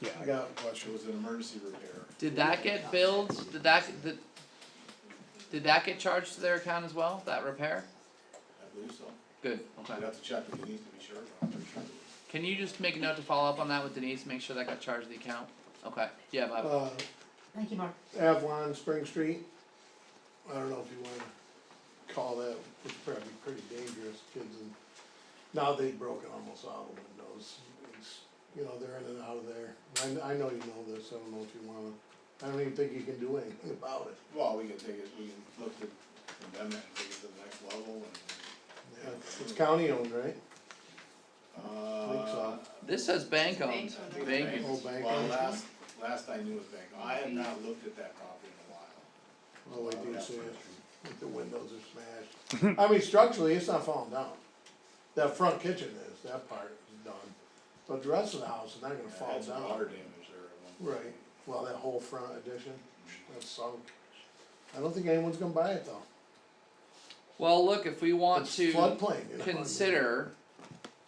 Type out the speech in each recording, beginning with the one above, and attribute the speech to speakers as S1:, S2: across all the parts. S1: Yeah, I got a question, was an emergency repair.
S2: Did that get billed? Did that did, did that get charged to their account as well? That repair?
S1: I believe so.
S2: Good.
S1: I'd
S2: Okay.
S1: have to check, but it needs to be sure, but I'm pretty sure. it was.
S2: Can you just make a note to follow up on that with Denise? Make sure that got charged to the account. Okay. Yeah, Bob.
S3: Uh,
S4: Thank you, Mark.
S3: Avalon Spring Street, I don't know if you wanna call that, it's probably pretty dangerous, kids and. Now they've broken almost all the windows, it's, you know, they're in and out of there, I, I know you know this, I don't know if you wanna, I don't even think you can do anything about it.
S1: Well, we can take it, we can look to condemn it and take it to the next level and,
S3: Yeah, It's county owned, right?
S1: uh.
S3: so.
S2: This says bank owned.
S1: I think
S2: Bank
S1: it's
S3: owned. Oh, bank
S1: Well,
S3: owned.
S1: last, last I knew it was bank, owned. I have not looked at that property in a while.
S3: Oh, I do
S1: That's
S3: see
S1: for
S3: it,
S1: sure.
S3: the windows are smashed, I mean structurally, it's not falling down. That front kitchen is, that part is done, but the rest of the house is not gonna
S1: Yeah,
S3: fall down.
S1: That's water damage there at one point.
S3: Right, well, that whole front addition, that's sunk. I don't think anyone's gonna buy it though.
S2: Well, look, if we want
S3: It's
S2: to
S3: Floodplain, you know. I mean.
S2: consider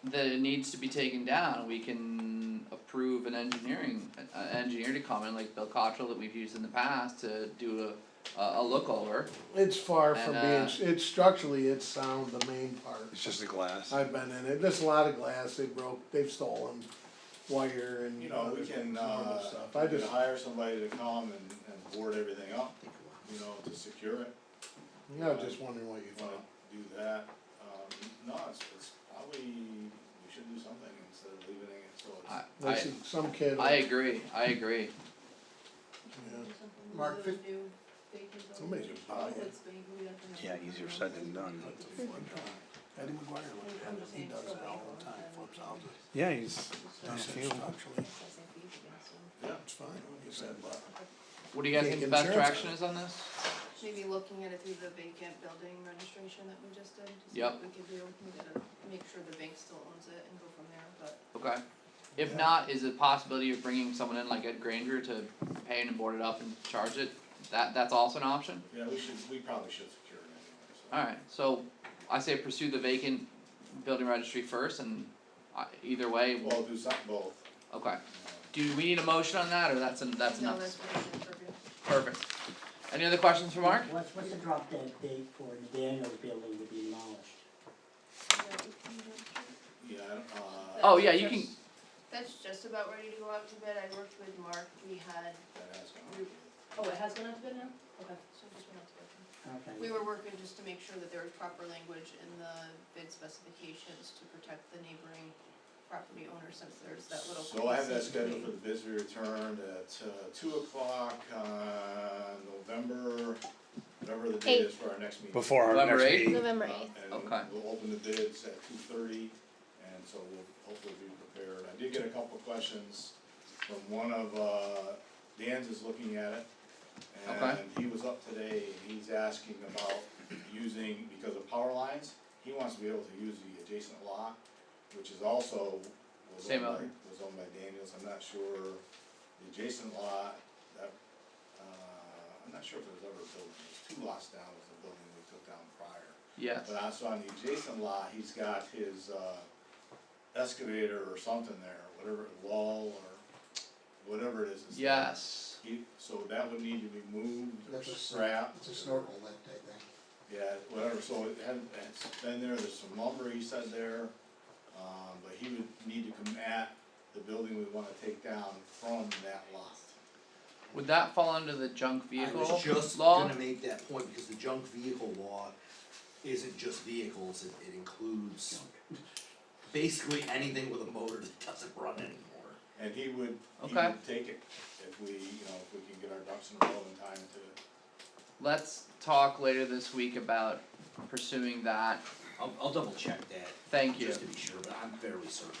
S2: that it needs to be taken down, we can approve an engineering, an- an engineer to come in like Bill Cottrell that we've used in the past to do a, a, a look over.
S3: It's far from being,
S2: And, uh,
S3: it's structurally, it's sound, the main part.
S5: It's just a glass.
S3: I've been in it, there's a lot of glass, they broke, they've stolen wire and.
S1: You know, we
S3: other
S1: can,
S3: normal
S1: uh,
S3: stuff. I
S1: we can
S3: just,
S1: hire somebody to come and, and board everything up, you know, to secure it,
S3: yeah, I was just wondering what you
S1: if you wanna
S3: thought.
S1: do that. Um, no, it's, it's probably, we should do something instead of leaving it so
S2: I,
S1: it's,
S3: I
S2: I,
S3: see some kid.
S2: I agree, I agree.
S3: Yeah.
S6: Mark, fif-
S3: Somebody's gonna buy it.
S5: Yeah, easier said than done.
S7: Eddie McGuire would have it, he does it all the time, flips houses,
S5: Yeah, he's
S7: he said structurally,
S1: yeah.
S7: it's fine, he said, but
S2: What do you guys
S3: Yeah,
S2: think the
S3: get
S2: best
S3: insurance
S2: direction is on this?
S6: Maybe looking at it through the vacant building registration that we just did, to see
S2: Yep.
S6: what we could do, we gotta make sure the bank still owns it and go from there, but.
S2: Okay. If
S3: Yeah.
S2: not, is it possibility of bringing someone in like Ed Granger to pay and board it up and charge it? That, that's also an option?
S1: Yeah, we should, we probably should secure it anyway, so.
S2: Alright, so I say pursue the vacant building registry first and I, either way,
S1: Well, do something both.
S2: okay.
S1: you
S2: Do we need a motion on that or that's an, that's
S6: No,
S2: enough?
S6: that's what I did for you.
S2: Perfect. Any other questions for Mark?
S8: What's, what's the drop dead date for the Daniels building to be demolished?
S1: know, Yeah, I don't- uh,
S2: Oh, yeah, you can,
S6: That's just about ready to go out to bid, I worked with Mark, we had,
S1: that has gone.
S6: oh, it has gone out to bid now? Okay, so it just went out to bid. We
S8: Okay,
S6: were working just to make sure that there was proper language in the bid specifications to protect the neighboring property owner since there's that little.
S1: So I have that
S6: clause in
S1: scheduled for the bids we returned at uh, two o'clock on November, whatever the date is for our next meeting.
S5: before our
S2: November
S5: next
S2: eighth?
S5: meeting.
S1: Uh,
S9: November eighth.
S2: Okay.
S1: And we'll open the bids at two thirty, and so we'll hopefully be prepared. I did get a couple of questions from one of, uh, Dan's is looking at it.
S2: Okay.
S1: And he was up today, and he's asking about using, because of power lines, he wants to be able to use the adjacent lot, which is also, was
S2: Same
S1: owned by,
S2: owner.
S1: was owned by Daniels, I'm not sure, the adjacent lot, that, uh, I'm not sure if there was ever a building, there's two lots down, was a building we took down prior.
S2: yes,
S1: But I saw on the adjacent lot, he's got his, uh, excavator or something there, whatever, wall or whatever it is. it's-
S2: yes.
S1: He, so that would need to be moved or
S7: That's a s-
S1: scrapped.
S7: it's
S1: or-
S7: a snorkel that day, I think.
S1: Yeah, whatever, so it had, it's been there, there's some lumber he said there, um, but he would need to come at the building we wanna take down from that lot.
S2: Would that fall under the junk
S10: I
S2: vehicle
S10: was just
S2: law?
S10: gonna make that point, because the junk vehicle law isn't just vehicles, it it includes basically anything with a motor that doesn't run anymore.
S1: And he would, he
S2: Okay.
S1: would take it if we, you know, if we can get our ducks in a row in time to,
S2: Let's talk later this week about pursuing that.
S10: I'll I'll double check that,
S2: Thank you.
S10: just to be sure, but I'm fairly certain.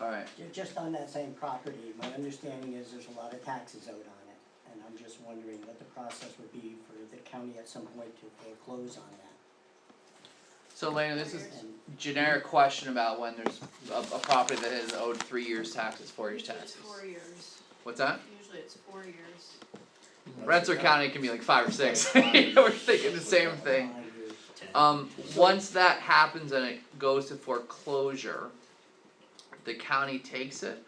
S2: Alright,
S8: Ju- just on that same property, my understanding is there's a lot of taxes owed on it, and I'm just wondering what the process would be for the county at some point to foreclose on that.
S2: so Lena, this is
S8: And
S2: generic question about when there's a, a property that has owed three years taxes, four years
S6: Usually it's
S2: taxes.
S6: four years,
S2: What's that?
S6: usually it's four years.
S2: Rensselaer County can be like five or six, we're thinking the same thing.
S8: five years,
S2: Um, once that happens and it goes to foreclosure, the county takes it